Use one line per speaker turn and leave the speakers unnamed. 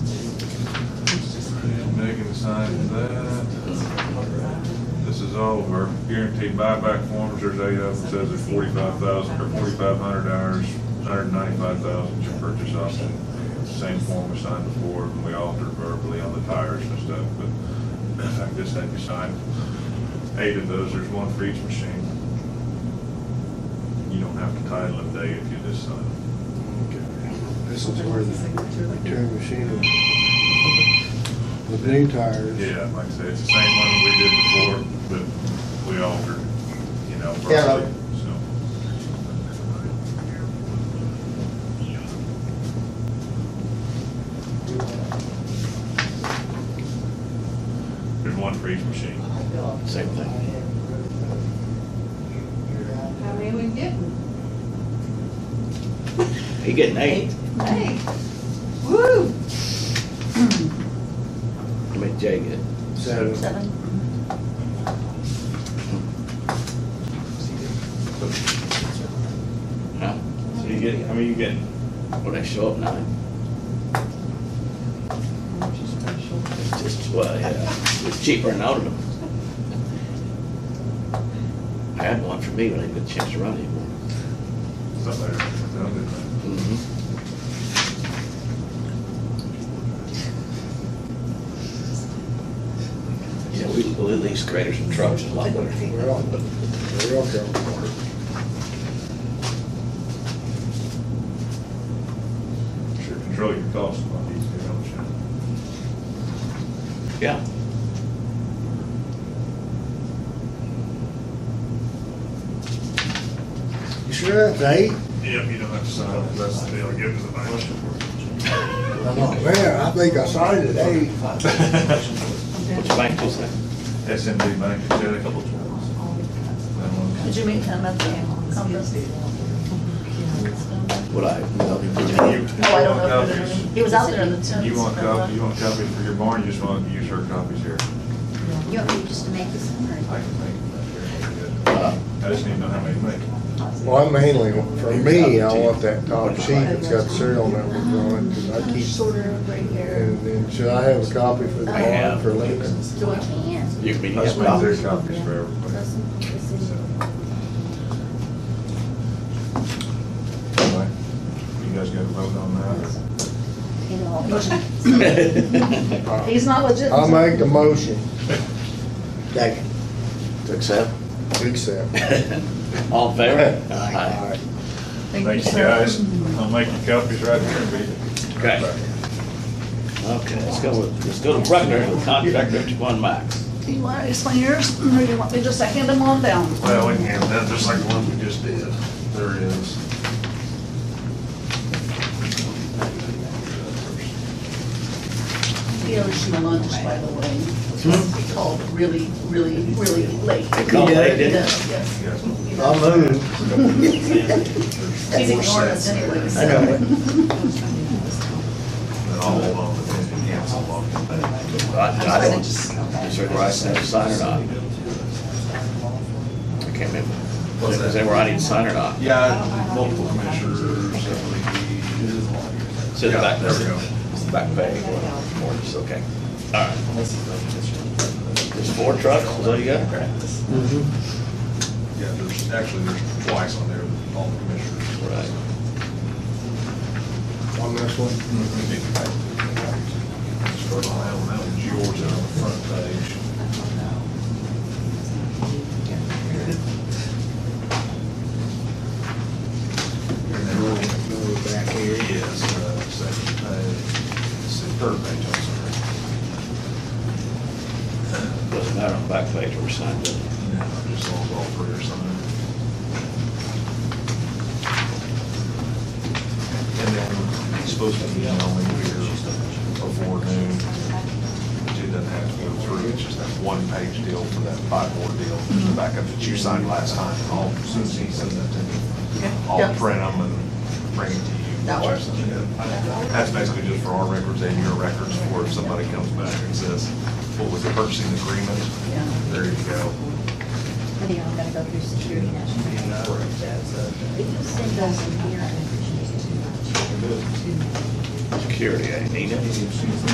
sign that. This is all of our guaranteed buyback forms, there's eight of them, says it's forty-five thousand, or forty-five hundred hours, hundred ninety-five thousand to purchase option. Same form we signed before, and we altered verbally on the tires and stuff, but I guess that you signed eight of those, there's one for each machine. You don't have to title them day if you just sign them.
This is where the return machine, the new tires.
Yeah, like I said, it's the same one we did before, but we altered, you know,
Yeah.
verbally, so. There's one for each machine.
Same thing.
How many we getting?
He getting eight.
Hey, woo!
I mean, Jay get.
Seven.
Huh?
So you get, how many you getting?
Well, they show up nine. It's just, well, yeah, it's cheaper than aluminum. I had one for me, but I didn't get a chance to run anymore.
Something like that. Sound good.
Mhm. Yeah, we we lease graders and trucks and like that.
We're all, we're all going.
Sure, control your costs on these, you know, Shannon.
Yeah.
You sure that's eight?
Yep, you don't have to sign, them. that's the deal, give us a bunch.
I'm like, man, I think I signed it eight.
Which bank was that?
SMB Bank, they had a couple times.
Did you meet him at the conference?
Would I?
Oh, I don't know. if it was- He was out there in the tent.
You want copy, you want copies for your barn, you just want to use her copies here.
You want me just to make this one, or?
I can make them
Uh,
up here. I just need to know how many to make.
Well, I mainly, for me, I want that top sheet that's got serial numbers on it, because I keep,
Shorter, gray hair.
and then should I have a copy for the
I have.
bond for Lincoln?
Do I can?
You mean,
I just make
yeah,
their copies for everybody. Anyway, You guys got to vote on that?
He's not legit.
I'll make the motion. Second.
to accept?
Accept.
All in favor?
Aye.
Thank you, guys. I'll make your copies right here, and be.
Okay. Okay, let's go with, let's go to Bruckner, the contractor, to one max.
Do you want to explain yours, or do you want me just to hand them on down?
Well, we can have that, just like the one we just did. There it is.
He owes you lunch, by the way.
Hmm?
He called really, really, really late.
They called late,
He
didn't
does, yes.
Yes.
He
I'll
does.
move.
He's ignored us anyway,
I
so.
know.
And all along, and yes, all along.
they? I I don't, is there a right to have to sign or not? I can't remember. Was it, was there where I need to sign or not?
Yeah, multiple commissioners, I
It's in the back.
Yeah, there we go.
Back page, or just, okay. All right. There's four trucks, is that you got?
believe. Yeah, there's, actually, there's twice on there, all the commissioners.
Right.
On this one.
Start on that one, that one's yours there on the front page. And then we'll
Move back
Here
here.
he is, uh, second page, it's the third page, I'm sorry.
Doesn't matter on the back page where we signed it.
Yeah, Just all, all three or something. And then he's supposed to be emailing here before noon. She doesn't have to go through, it's just that one page deal for that five more deal, just the backup that you signed last time. And all, as soon as he sends that to me, I'll
Yeah.
print them and bring it to you.
That works.
That's basically just for our records and your records, for if somebody comes back and says, what was the purchasing agreement?
Yeah.
There you go.
I think I'm gonna um, go through security national. If you send those in here, I appreciate it too much.
eh? Security, I need it.